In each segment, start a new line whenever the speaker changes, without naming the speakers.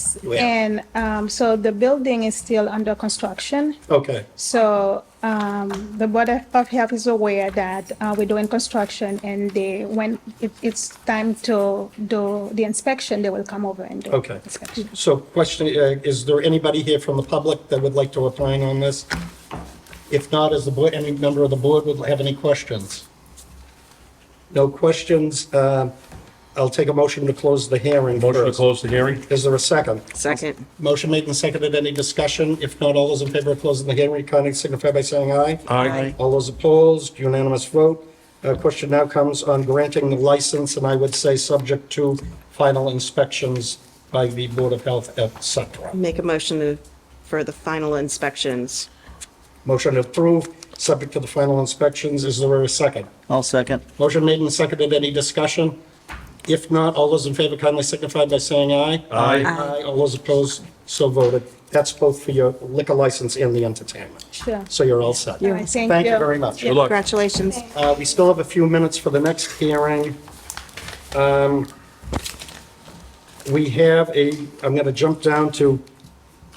Yes,
Yeah.
and um, so the building is still under construction.
Okay,
So um, the Board of Health is aware that uh, we're doing construction and they, when it- it's time to do the inspection, they will come over and do.
Okay.
inspection.
so question, uh, is there anybody here from the public that would like to opine on this? If not, is the board, any member of the board would have any questions? No questions, uh, I'll take a motion to close the hearing
Motion to
first.
close the hearing?
Is there a second?
Second.
Motion made and seconded, any discussion? If not, all those in favor of closing the hearing, kindly signify by saying aye.
Aye.
All those opposed, unanimous vote. Uh, Question now comes on granting the license, and I would say subject to final inspections by the Board of Health, et cetera.
Make a motion to- for the final inspections.
Motion approved, subject to the final inspections. Is there a second?
I'll second.
Motion made and seconded. Any discussion? If not, all those in favor kindly signify by saying aye.
Aye.
Aye. All those opposed, so voted. That's both for your liquor license and the entertainment.
Sure.
So you're all set.
All right, thank you.
Thank you very much.
Good luck.
Congratulations.
Uh, We still have a few minutes for the next hearing. Um, We have a, I'm going to jump down to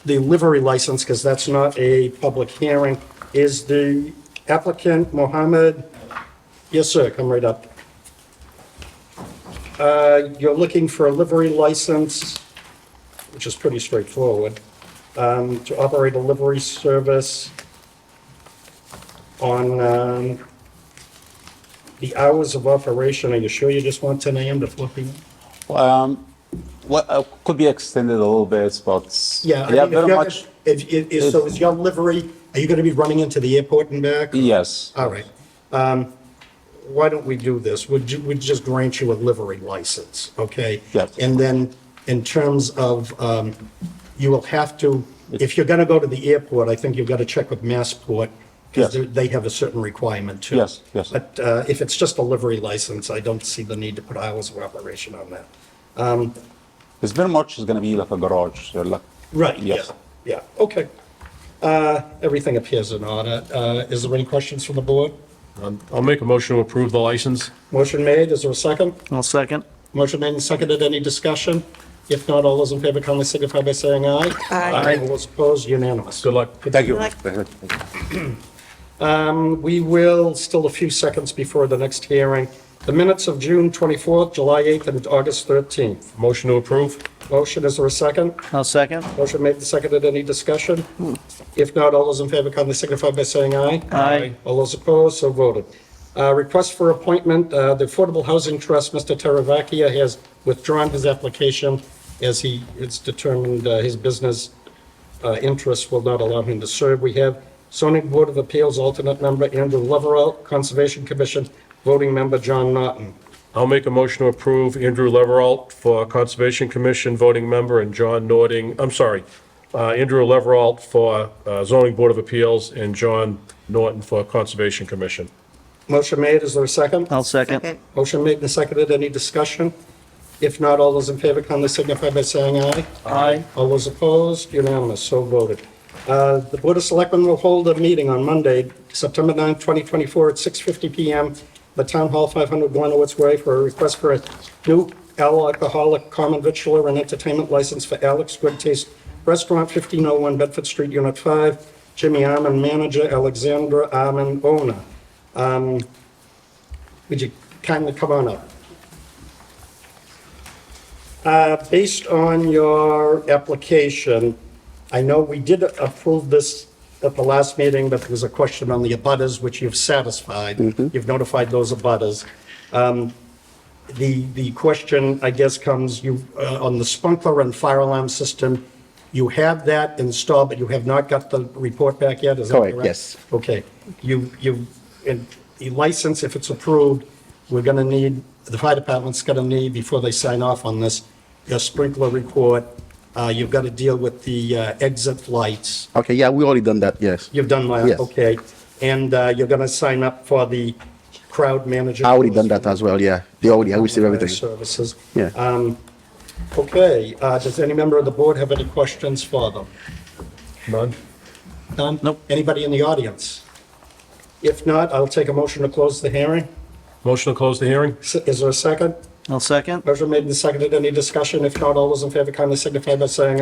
the livery license because that's not a public hearing. Is the applicant Mohammed? Yes, sir, come right up. Uh, You're looking for a livery license, which is pretty straightforward, um, to operate a livery service on um, the hours of operation, are you sure you just want 10 AM to 4 PM?
Um, well, uh, could be extended a little bit, but
Yeah, I mean, if
very
you're-
much.
if- if- if- so is your livery, are you going to be running into the airport and back?
Yes.
All right. Um, Why don't we do this? Would you, would just grant you a livery license, okay?
Yes.
And then in terms of, um, you will have to, if you're going to go to the airport, I think you've got to check with Massport because
Yes.
they have a certain requirement too.
Yes, yes.
But uh, if it's just a livery license, I don't see the need to put hours of operation on that.
It's very much is going to be like a garage. uh, Like,
Right, yeah,
Yes.
yeah, okay. Uh, Everything appears in order. Uh, Is there any questions from the board?
I'll make a motion to approve the license.
Motion made, is there a second?
I'll second.
Motion made and seconded, any discussion? If not, all those in favor kindly signify by saying aye.
Aye.
All those opposed, unanimous.
Good luck.
thank you.
Like-
We will, still a few seconds before the next hearing, the minutes of June 24th, July 8th, and August 13th.
Motion to approve?
Motion, is there a second?
I'll second.
Motion made and seconded, any discussion? If not, all those in favor kindly signify by saying aye.
Aye.
All those opposed, so voted. Uh, Request for appointment, uh, the Affordable Housing Trust, Mr. Taravakia has withdrawn his application as he, it's determined uh, his business uh, interests will not allow him to serve. We have zoning board of appeals alternate member Andrew Loverell, Conservation Commission voting member John Norton.
I'll make a motion to approve Andrew Leveralt for Conservation Commission voting member and John Nording, I'm sorry, uh, Andrew Leveralt for uh, zoning board of appeals and John Norton for Conservation Commission.
Motion made, is there a second?
I'll second.
Second.
Motion made and seconded, any discussion? If not, all those in favor kindly signify by saying aye.
Aye.
All those opposed, unanimous, so voted. Uh, The Board of Selectmen will hold a meeting on Monday, September 9th, 2024, at 6:50 PM, the Town Hall, 500 Glenowitz Way, for a request for a new alcoholic common vitular and entertainment license for Alex Good Taste Restaurant, 1501 Bedford Street, Unit 5, Jimmy Arman, manager, Alexandra Arman, owner. Um, Would you kindly come on up? Uh, Based on your application, I know we did approve this at the last meeting, but there was a question on the abutters, which you've satisfied. You've notified those abutters. Um, The, the question, I guess, comes, you, uh, on the sprinkler and fire alarm system, you have that installed, but you have not got the report back yet, is that correct?
Correct, yes.
Okay, you, you, and the license, if it's approved, we're gonna need, the fire department's gonna need, before they sign off on this, your sprinkler report, uh, you've gotta deal with the uh, exit lights.
Okay, yeah, we already done that, yes.
You've done that,
Yes.
okay? And, uh, you're gonna sign up for the crowd manager.
I already done that as well, yeah. They already, I received everything.
Services.
Yeah.
Um, okay, uh, does any member of the board have any questions for them?
None?
None?
Nope.
Anybody in the audience? If not, I'll take a motion to close the hearing.
Motion to close the hearing?
S- Is there a second?
I'll second.
Motion made and seconded. Any discussion? If not, all those in favor kindly signify by saying